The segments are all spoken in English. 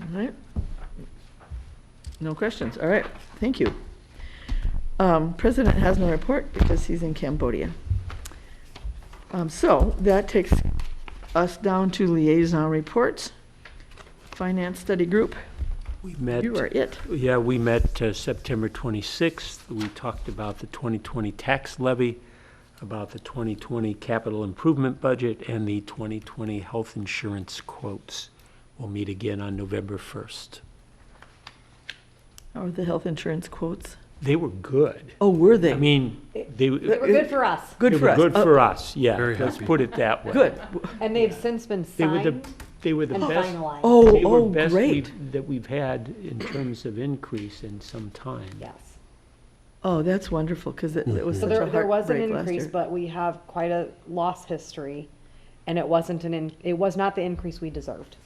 All right. No questions. All right, thank you. Um, President has no report because he's in Cambodia. Um, So that takes us down to liaison reports. Finance Study Group, We met, you are it. yeah, we met uh, September 26th. We talked about the 2020 tax levy, about the 2020 capital improvement budget, and the 2020 health insurance quotes. We'll meet again on November 1st. How are the health insurance quotes? They were good. Oh, were they? I mean, they. They were good for us, Good They for were us. good Oh, for us, yeah. Very Let's happy. put it that way. Good. and they've since been They were the, signed they were the and best. finalized. Oh, they were oh, best great. we've- That we've had in terms of increase in some time. Yes. Oh, that's wonderful because it it was So such a there, there was an heartbreak last increase, year. but we have quite a loss history, and it wasn't an, in- it was not the increase we deserved.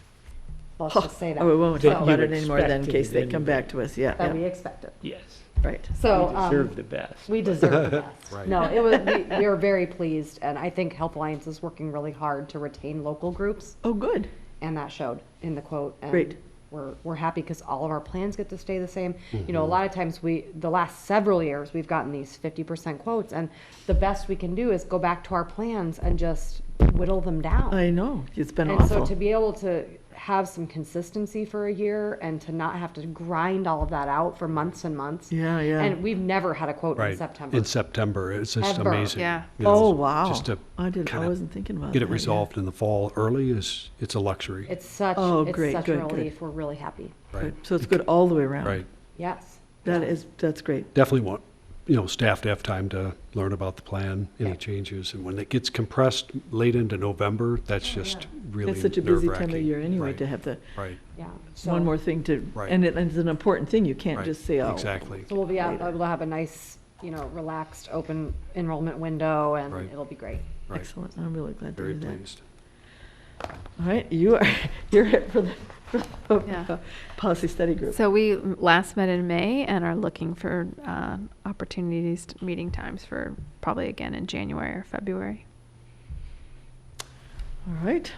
Let's just say Oh, we that, won't That talk you about it anymore then in expected case they it come back to us. Yeah, that we yeah, expected. Yes, right. So, we um, deserve the best. We deserve the best. Right. No, it was, we, we were very pleased, and I think Health Alliance is working really hard to retain local groups, Oh, good. and that showed in the quote. And Great. We're, we're happy because all of our plans get to stay the same. You know, a lot of times we, the last several years, we've gotten these fifty percent quotes, and the best we can do is go back to our plans and just whittle them down. I know. It's been And so to awful. be able to have some consistency for a year and to not have to grind all of that out for months and months. Yeah, yeah. And we've never had a quote in September. In September, it's just Ever. amazing. Yeah. you know, Oh, wow. Just to I didn't, I kinda wasn't thinking about that. get it yeah. resolved in the fall early is, it's a luxury, It's such, Oh, it's great, such good, a good. relief. We're really happy. right? Good. So it's good all the way around. Right. Yes. That is, that's great. Definitely want, you know, staff to have time to learn about the plan, any changes. And when it gets compressed late into November, that's just really It's such a busy time of nerve-wracking. year anyway Right, to have the, Right, Yeah. So- one more thing to, Right. and it- and it's an important thing. You can't right. just say, oh. Exactly. So we'll be, out- we'll have a nice, you know, relaxed, open enrollment window and Right. it'll be great. Right. Excellent. I'm really glad to Very hear that. pleased. All right, you are, you're it for the, for Yeah. the policy study group. So we last met in May and are looking for uh, opportunities, meeting times for probably again in January or February. All right.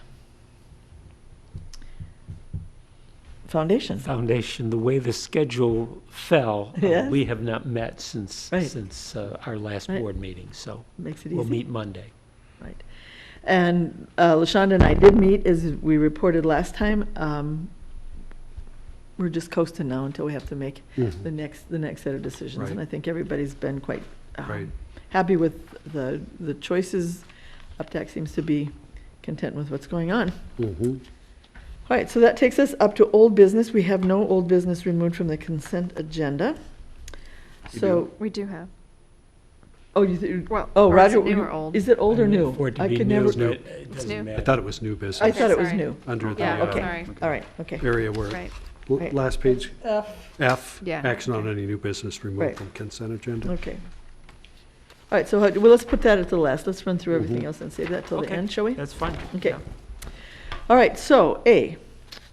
Foundation. Foundation, the way the schedule fell, uh, Yes. we have not met since, Right. since uh, our last Right. board meeting, so Makes it easy. we'll meet Monday. Right. And uh, LaShonda and I did meet, as we reported last time. Um, We're just coasting now until we have to make the Mm-hmm. next, the next set of decisions. And I Right. think everybody's been quite um, Right. happy with the, the choices. UpTac seems to be content with what's going on. Mhm. All right, so that takes us up to old business. We have no old business removed from the consent agenda. You So, We do have. oh, you, th- Well, oh, or is Roger, it new you- or old? is it old or new? For it to I be could new, never. new. it- it doesn't new. I I matter. thought it was new I business thought it was sorry. new. under the Yeah, uh, Okay, sorry. all right, okay. area where, Right. l- Right. last page, F, Yeah. action on any new business Right. removed from consent agenda. Okay. All right, so, how- well, let's put that at the last. Let's run through everything else and save that till the Mm-hmm. Okay. end, shall we? That's fine. Okay. yeah. All right, so A,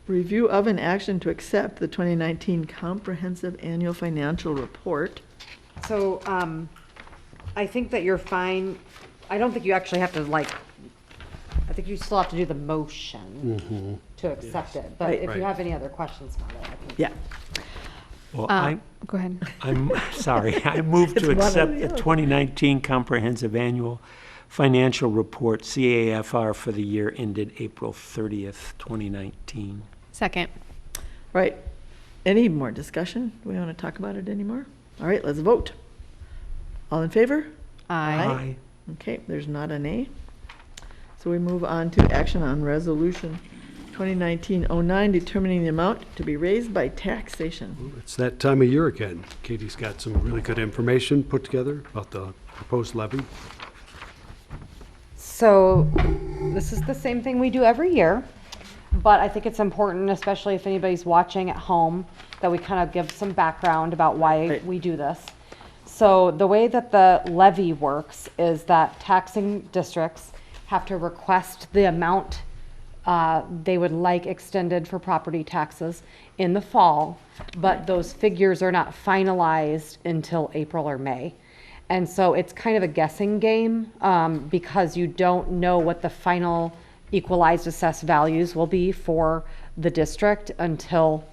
review of an action to accept the 2019 Comprehensive Annual Financial Report. So, um, I think that you're fine. I don't think you actually have to like, I think you still have to do the motion to accept it. But Right. if you Right. have any other questions about it, I can. Yeah. Well, Uh, I, go ahead. I'm, sorry, I move It's to one or accept the the other. 2019 Comprehensive Annual Financial Report, CAFR, for the year ended April 30th, 2019. Second. Right. Any more discussion? Do we want to talk about it anymore? All right, let's vote. All in favor? Aye. Aye. Okay, there's not an A. So we move on to action on resolution 2019-09, determining the amount to be raised by taxation. It's that time of year again. Katie's got some really good information put together about the proposed levy. So this is the same thing we do every year, but I think it's important, especially if anybody's watching at home, that we kind of give some background about why Right. we do this. So the way that the levy works is that taxing districts have to request the amount uh, they would like extended for property taxes in the fall, but those figures are not finalized until April or May. And so it's kind of a guessing game um, because you don't know what the final equalized assessed values will be for the district until